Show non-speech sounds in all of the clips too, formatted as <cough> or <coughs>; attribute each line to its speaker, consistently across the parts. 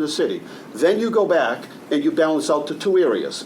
Speaker 1: the city. Then you go back and you balance out to two areas.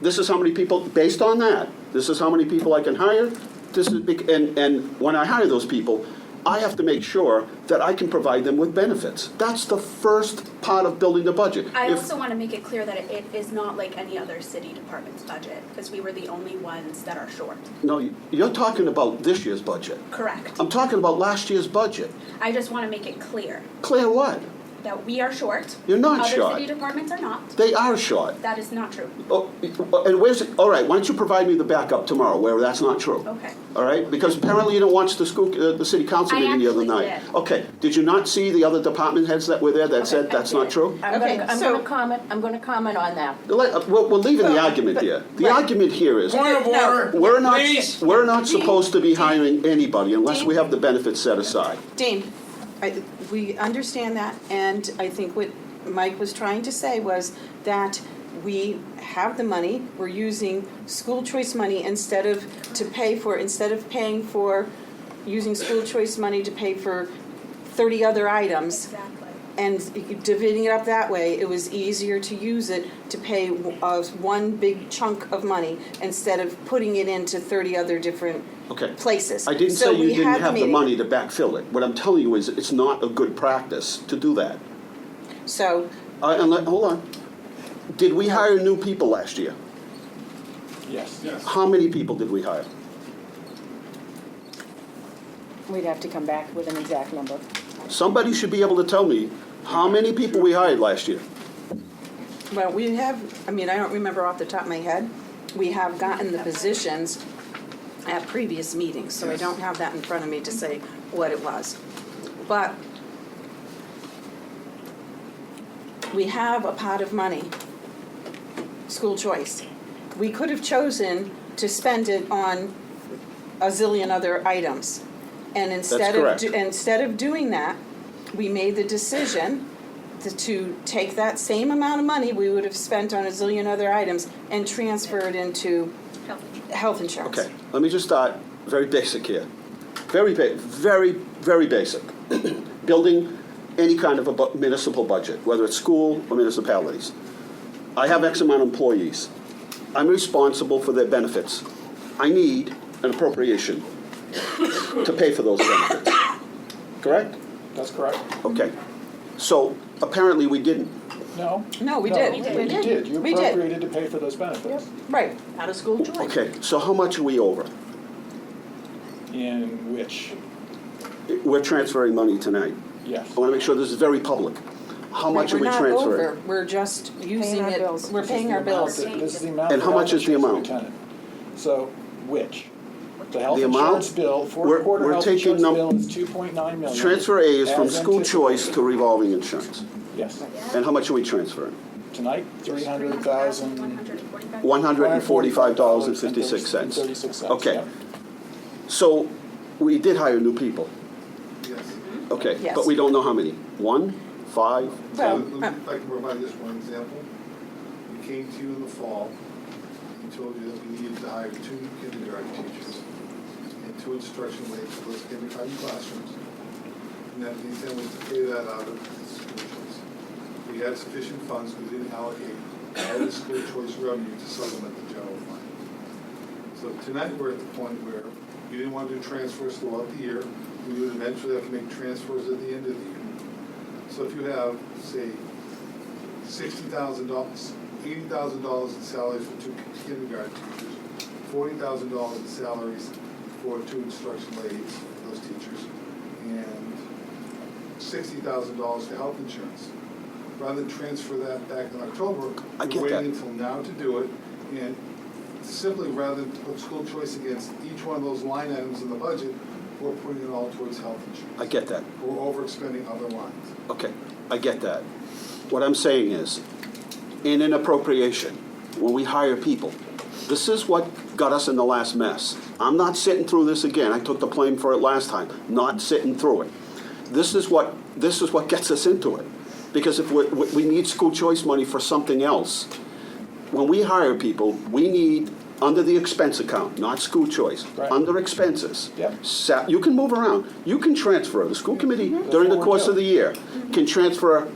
Speaker 1: This is how many people, based on that, this is how many people I can hire, this is, bec- and, and when I hire those people, I have to make sure that I can provide them with benefits. That's the first part of building the budget.
Speaker 2: I
Speaker 1: If-
Speaker 2: also want to make it clear that it is not like any other city department's budget, because we were the only ones that are short.
Speaker 1: No, you're talking about this year's budget.
Speaker 2: Correct.
Speaker 1: I'm talking about last year's budget.
Speaker 2: I just want to make it clear
Speaker 1: Clear what?
Speaker 2: that we are short.
Speaker 1: You're not short.
Speaker 2: Other city departments are not.
Speaker 1: They are short.
Speaker 2: That is not true.
Speaker 1: Oh, and where's, it- all right, why don't you provide me the backup tomorrow where that's not true?
Speaker 2: Okay.
Speaker 1: All right, because apparently you didn't watch the school, uh, the city council
Speaker 2: I
Speaker 1: meeting the other
Speaker 2: actually
Speaker 1: night.
Speaker 2: did.
Speaker 1: Okay, did you not see the other department heads that were there that said
Speaker 2: I
Speaker 1: that's not
Speaker 2: did.
Speaker 1: true?
Speaker 3: I'm
Speaker 4: Okay,
Speaker 3: gonna, I'm
Speaker 4: so-
Speaker 3: gonna comment, I'm gonna comment on that.
Speaker 1: Let- uh, We're, we're leaving the
Speaker 4: Well,
Speaker 1: argument
Speaker 4: but-
Speaker 1: here. The
Speaker 4: right.
Speaker 1: argument here is,
Speaker 5: Point of
Speaker 4: No.
Speaker 5: order.
Speaker 1: we're not,
Speaker 5: Please.
Speaker 1: we're not supposed to be hiring anybody unless
Speaker 4: Dean?
Speaker 1: we have the benefits set aside.
Speaker 4: Dean, I, we understand that, and I think what Mike was trying to say was that we have the money, we're using school choice money instead of, to pay for, instead of paying for, using school choice money to pay for thirty other items.
Speaker 2: Exactly.
Speaker 4: And dividing it up that way, it was easier to use it to pay uh, one big chunk of money instead of putting it into thirty other different
Speaker 1: Okay.
Speaker 4: places.
Speaker 1: I didn't
Speaker 4: So
Speaker 1: say you
Speaker 4: we
Speaker 1: didn't
Speaker 4: had
Speaker 1: have the
Speaker 4: meeting.
Speaker 1: money to backfill it. What I'm telling you is, it's not a good practice to do that.
Speaker 4: So
Speaker 1: Uh, and let, hold on. Did we hire new people last year?
Speaker 5: Yes.
Speaker 1: How many people did we hire?
Speaker 3: We'd have to come back with an exact number.
Speaker 1: Somebody should be able to tell me how many people we hired last year.
Speaker 4: Well, we have, I mean, I don't remember off the top of my head, we have gotten the positions at previous meetings, so I don't have that in front of me to say what it was. But we have a pot of money, school choice. We could have chosen to spend it on a zillion other items. And instead of,
Speaker 1: correct.
Speaker 4: do- instead of doing that, we made the decision to- to take that same amount of money we would have spent on a zillion other items and transfer it into
Speaker 2: Health insurance.
Speaker 4: health insurance.
Speaker 1: Okay, let me just start very basic here. Very, ba- very, very basic. <clears throat> Building any kind of a bu- municipal budget, whether it's school or municipalities. I have X amount of employees. I'm responsible for their benefits. I need an appropriation <coughs> to pay for those benefits. Correct?
Speaker 5: That's correct.
Speaker 1: Okay. So apparently we didn't.
Speaker 5: No?
Speaker 4: No, we did. We did.
Speaker 5: You did. You
Speaker 4: We did.
Speaker 5: appropriated to pay for those benefits.
Speaker 4: Right, out of school choice.
Speaker 1: Okay, so how much are we over?
Speaker 5: In which,
Speaker 1: We're transferring money tonight.
Speaker 5: yes.
Speaker 1: I want to make sure this is very public. How much are we transferring?
Speaker 4: We're not over, we're just using
Speaker 3: our
Speaker 4: it,
Speaker 3: bills.
Speaker 4: we're
Speaker 5: This is
Speaker 4: paying
Speaker 5: the
Speaker 4: our
Speaker 5: amount
Speaker 4: bills.
Speaker 5: that- This is the amount.
Speaker 1: And
Speaker 5: that
Speaker 1: how much is the
Speaker 5: health
Speaker 1: amount?
Speaker 5: insurance lieutenant. So, which? The health
Speaker 1: The amount?
Speaker 5: insurance bill,
Speaker 1: We're-
Speaker 5: fourth quarter
Speaker 1: we're
Speaker 5: health
Speaker 1: taking
Speaker 5: insurance
Speaker 1: num-
Speaker 5: bill is two point nine million.
Speaker 1: Transfer A is from
Speaker 5: as
Speaker 1: school
Speaker 5: anticipated.
Speaker 1: choice to revolving insurance.
Speaker 5: Yes.
Speaker 1: And how much are we transferring?
Speaker 5: Tonight, three hundred thousand.
Speaker 1: $145.56.
Speaker 5: Thirty-six cents.
Speaker 1: Okay.
Speaker 5: yep.
Speaker 1: So we did hire new people.
Speaker 6: Yes.
Speaker 1: Okay,
Speaker 4: Yes.
Speaker 1: but we don't know how many. One, five,
Speaker 4: Well,
Speaker 6: Let me-
Speaker 4: uh,
Speaker 6: If I can provide just one example. We came to you in the fall and told you that we needed to hire two kindergarten teachers and two instruction aides for those kindergarten classrooms. And that the intent was to pay that out of the school choice. We had sufficient funds, we didn't allocate all the school choice revenue to supplement the general fund. So tonight, we're at the point where we didn't want to do transfers throughout the year. We would eventually have to make transfers at the end of the year. So if you have, say, sixty thousand dollars, eighty thousand dollars in salaries for two kindergarten teachers, forty thousand dollars in salaries for two instruction aides, those teachers, and sixty thousand dollars for health insurance. Rather than transfer that back in October,
Speaker 1: I get
Speaker 6: we're
Speaker 1: that.
Speaker 6: waiting until now to do it, and simply rather than put school choice against each one of those line items in the budget, we're putting it all towards health insurance.
Speaker 1: I get that.
Speaker 6: We're overexpending other lines.
Speaker 1: Okay, I get that. What I'm saying is, in an appropriation, when we hire people, this is what got us in the last mess. I'm not sitting through this again. I took the blame for it last time. Not sitting through it. This is what this is what gets us into it, because if we, we we need school choice money for something else, when we hire people, we need under the expense account, not school choice,
Speaker 5: Right.
Speaker 1: under expenses.
Speaker 5: Yep. Mm-hmm.
Speaker 1: Sa- you can move around. You can transfer. The school committee during
Speaker 5: what
Speaker 1: the
Speaker 5: we're
Speaker 1: course of
Speaker 5: doing.
Speaker 1: the year can transfer